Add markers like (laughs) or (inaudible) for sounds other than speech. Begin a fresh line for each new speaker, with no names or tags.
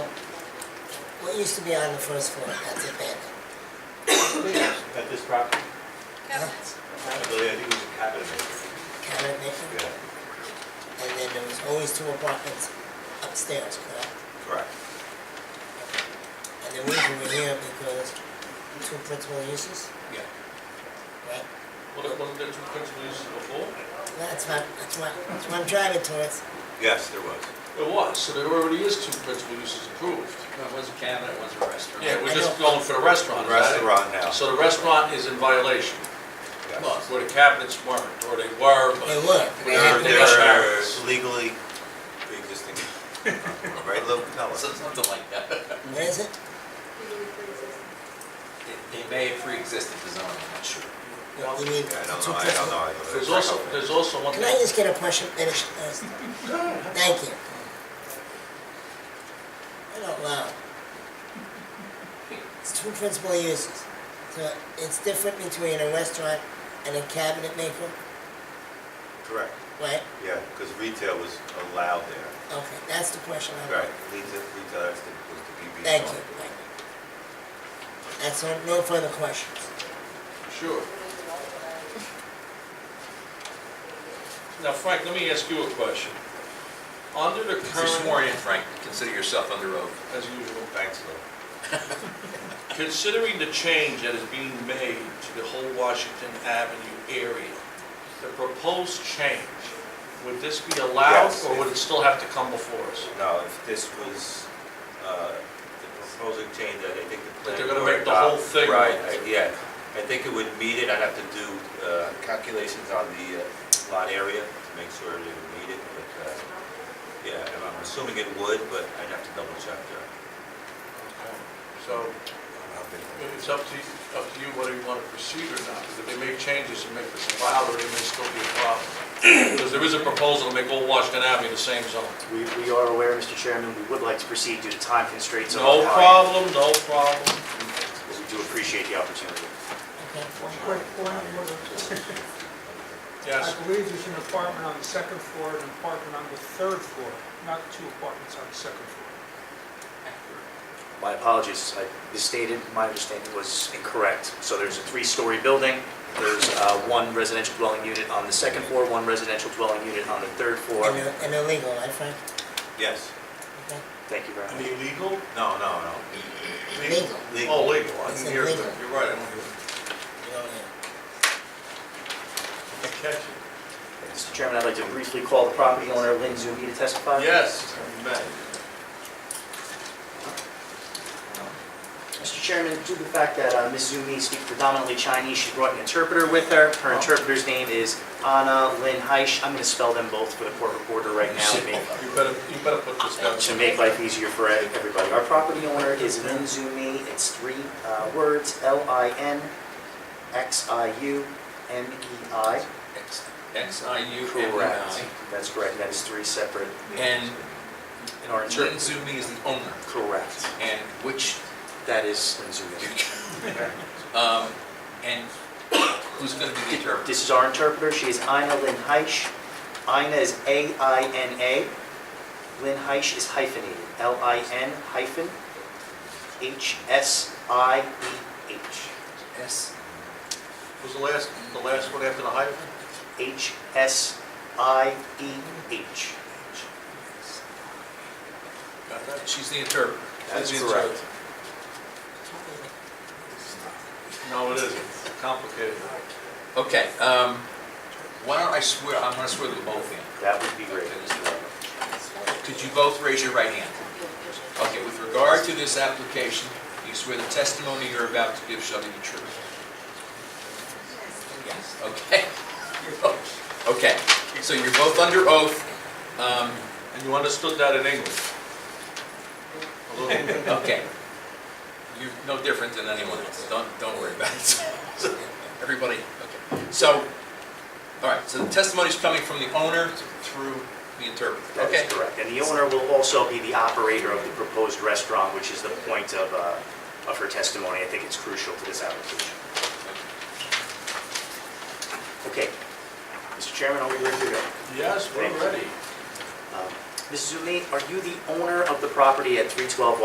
it used to be on the first floor, that's abandoned.
At this property,
Cabinets.
I believe, I think it was a cabinet maker.
Cabinet maker,
Yeah,
and then there was always two apartments upstairs, correct?
correct.
And the reason we're here because two principal uses,
Yeah.
right?
Well, there wasn't there two principal uses before?
That's what, that's what, that's what I'm driving towards.
Yes, there was.
There was, so there already is two principal uses approved.
It was a cabinet, it was a restaurant.
Yeah, we're
I
just
know.
going for the restaurant, Oh, is that it?
Restaurant now,
So the restaurant is in violation,
yes.
where the cabinets weren't, or they were,
They
but
were.
We
They're,
have to
They
go back.
they're legally pre-existing, (laughs) right, little Pella?
So- Something like that. (laughs)
Where is it?
They- They may have pre-existed the zoning, I'm not sure.
You mean,
Yeah, I don't
two
know, I don't
principal.
know. I don't know.
there's also, there's also one
Can I
thing,
just get a question finished first? Thank you. I don't know. It's two principal uses. So it's different between a restaurant and a cabinet maker,
Correct,
right?
yeah, because retail was allowed there.
Okay, that's the question I
Right,
want.
retail, retail has to, was to be.
Thank you. Thank you. That's all, no further questions.
sure. Now Frank, let me ask you a question. Under the
If you're sworn
current,
in, Frank, consider yourself under oath.
as usual,
Thanks, Lou.
Considering the change that is being made to the whole Washington Avenue area, the proposed change, would this be allowed
Yes.
or would it still have to come before us?
No, if this was, uh, the proposing change, that I think the
That
planning
they're
board...
gonna make the whole
adopted-
thing
Right,
work.
I- yeah. I think it would meet it, I'd have to do uh, calculations on the uh, lot area to make sure it would meet it, but, uh, yeah, and I'm assuming it would, but I'd have to double check there.
So
I
it's up to, you- up to you whether you want to proceed or not, because if they make changes and make this allowed, or it may still be a problem. (clears throat) Because there is a proposal to make all Washington Avenue the same zone.
We, we are aware, Mr. Chairman, we would like to proceed due to time constraints. on
No
our-
problem, no problem.
But we do appreciate the opportunity.
Okay?
Quick point of order. I
Yes,
believe there's an apartment on the second floor and an apartment on the third floor, not two apartments on the second floor.
My apologies, I misstated, my understanding was incorrect. So there's a three-story building, there's uh, one residential dwelling unit on the second floor, one residential dwelling unit on the third floor.
And they're- And illegal, right Frank?
Yes.
Okay?
Thank you very much.
illegal?
No, no, no.
Legal.
Oh, legal, I
It's
didn't hear, it,
illegal.
but you're right, I don't hear. it.
You don't hear.
I catch it.
Mr. Chairman, I'd like to briefly call the property owner, Lynn Zumi, to testify.
Yes, you may.
Mr. Chairman, due to the fact that uh, Ms. Zumi speaks predominantly Chinese, she brought an interpreter with her. Her interpreter's name is Anna Lin Heish. I'm going to spell them both for the court reporter right now to make,
You better, you better put this down.
to make life easier for everybody. Our property owner is Lin Zumi. It's three uh, words, L-I-N-X-I-U-M-E-I.
X- X-I-U-M-E-I.
E Correct. That's correct. That is three separate,
And
in our
Lynn
interpreter.
Zumi is the owner,
Correct.
and which, (laughs)
That is Lin Zumi.
um, and who's gonna be the interpreter?
This is our interpreter, she is Ina Lynn Heish. Ina is A-I-N-A. Lynn Heish is hyphenated, L-I-N hyphen E H-S-I-E-H.
S.
Was the last, the last one after the hyphen?
E H-S-I-E-H.
Got that?
She's the interpreter.
That's
She's the
correct.
interpreter. No, it isn't. Complicated.
Okay, um, why don't I swear, I'm gonna swear to the both of you.
That would be great.
Okay, this is- Could you both raise your right hand? Okay, with regard to this application, you swear the testimony you're about to give shall be the truth? Yes. Okay. You're both- Okay, so you're both under oath. Um,
And you understood that in English? A little bit.
Okay. You're no different than anyone else. Don't, don't worry about it. (laughs) Everybody, okay. So, all right, so the testimony's coming from the owner through the interpreter.
That
Okay?
is correct. And the owner will also be the operator of the proposed restaurant, which is the point of, uh, of her testimony. I think it's crucial to this application. Okay. Mr. Chairman, are we ready to go?
Yes, we're ready.
Um, Ms. Zumi, are you the owner of the property at 312